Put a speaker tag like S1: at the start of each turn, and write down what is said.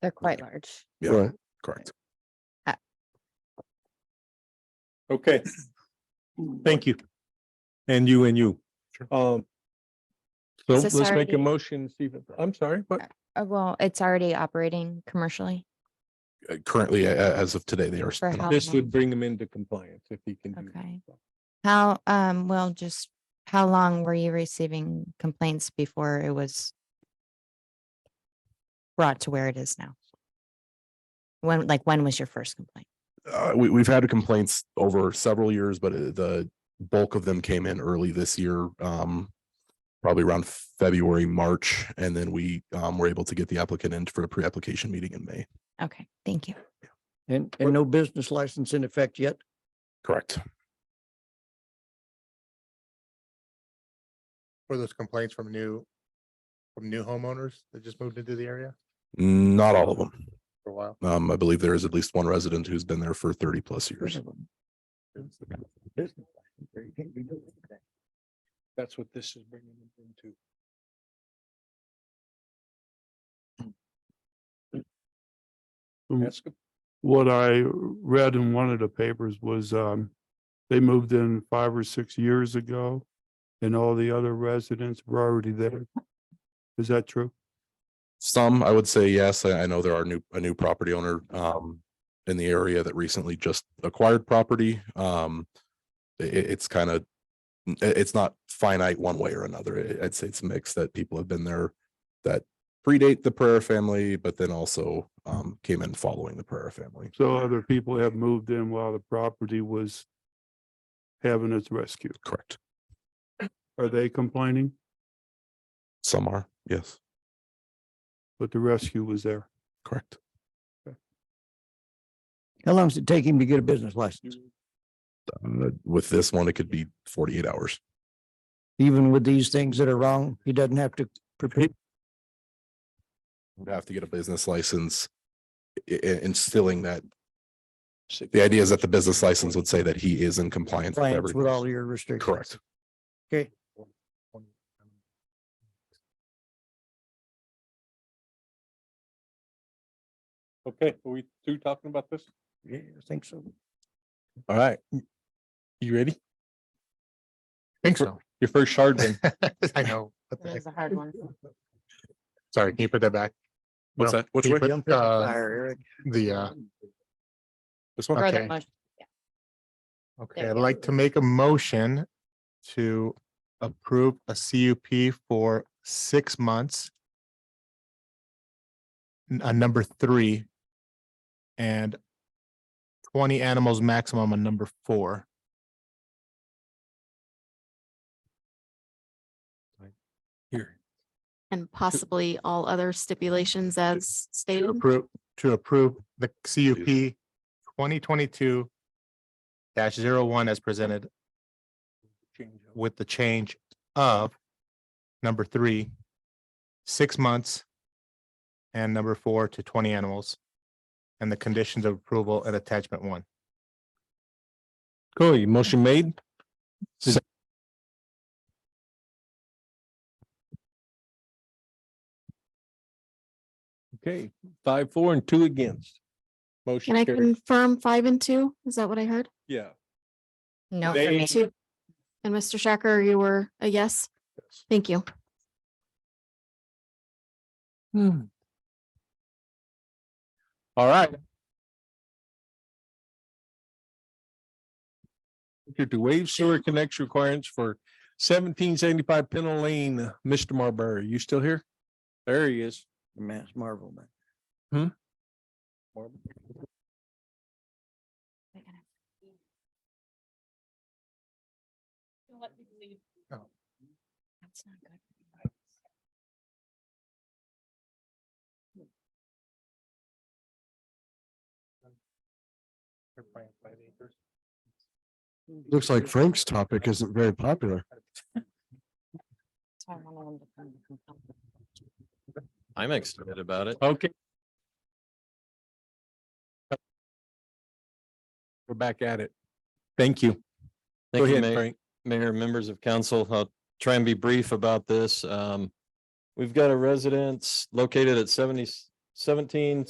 S1: They're quite large.
S2: Yeah.
S3: Right.
S2: Correct.
S3: Okay. Thank you. And you and you. Um. So
S1: Is this
S3: let's make
S1: already-
S3: a motion, Stephen. I'm sorry, but
S1: Uh, well, it's already operating commercially.
S2: Uh, Currently, a- a- as of today, they are.
S1: For
S2: spin-off.
S1: how
S3: this
S1: long?
S3: would bring him into compliance if he can do.
S1: Okay. How, um, well, just how long were you receiving complaints before it was brought to where it is now? When, like, when was your first complaint?
S2: Uh, we, we've had complaints over several years, but uh, the bulk of them came in early this year. Um, probably around February, March, and then we, um, were able to get the applicant in for a pre-application meeting in May.
S1: Okay, thank you.
S4: And, and no business license in effect yet?
S2: Correct.
S5: Were those complaints from new, from new homeowners that just moved into the area
S2: Not all of them.
S5: for a while?
S2: Um, I believe there is at least one resident who's been there for thirty plus years.
S3: That's what this is bringing him into.
S6: Mm.
S3: That's good.
S6: what I read in one of the papers was, um, they moved in five or six years ago and all the other residents were already there. Is that true?
S2: Some, I would say yes. I, I know there are new, a new property owner, um, in the area that recently just acquired property. Um, i- i- it's kind of, it's not finite one way or another. I- I'd say it's a mix that people have been there that predate the Pereira family, but then also, um, came in following the Pereira family.
S6: So other people have moved in while the property was having its rescue.
S2: Correct.
S6: Are they complaining?
S2: Some are, yes,
S6: But the rescue was there.
S2: correct.
S4: How long does it take him to get a business license?
S2: Uh, With this one, it could be forty-eight hours.
S4: Even with these things that are wrong, he doesn't have to prepare.
S2: Would have to get a business license, i- i- instilling that The idea is that the business license would say that he is in compliance with
S4: Plans with all
S2: everything.
S4: your restrictions.
S2: Correct.
S4: Okay.
S3: Okay, are we two talking about this?
S4: Yeah, I think so.
S3: All right. You ready?
S5: Think so.
S3: Your first shard win.
S5: I know. what the heck.
S1: a hard one.
S5: Sorry, can you put that back?
S2: What's
S5: Will,
S2: that? Which
S5: can you
S2: way?
S5: put, uh,
S4: Fire, Eric.
S5: The, uh,
S2: This one?
S5: Okay. okay, I'd like to make a motion to approve a CUP for six months. n- On number three. And twenty animals maximum on number four.
S3: Here.
S7: And possibly all other stipulations as
S5: to
S7: stated.
S5: approve, to approve the CUP twenty twenty-two dash zero one as presented
S3: Change over.
S5: with the change of number three, six months, and number four to twenty animals, and the conditions of approval and attachment one.
S3: Cool, your motion made. Is- Okay, five, four and two against.
S7: Can
S3: Motion
S7: I
S3: carried.
S7: confirm five and two? Is that what I heard?
S3: Yeah.
S1: No, for
S3: They-
S1: me.
S7: Two. And Mr. Shacker, you were a yes? Thank you.
S8: Hmm.
S3: All right. Here to waive sewer connection requirements for seventeen seventy-five Pennell Lane. Mr. Marbury, you still here? There he is.
S4: Mass Marvel, man. Oh.
S1: That's not good.
S9: Looks like Frank's topic isn't very popular.
S1: That's why I wanted them to come to complain.
S8: I'm excited about it.
S3: Okay. We're back at it. Thank you. Go
S8: Thank you,
S3: ahead,
S8: Mayor.
S3: Frank.
S8: Mayor, members of council, I'll try and be brief about this. Um, we've got a residence located at 70 17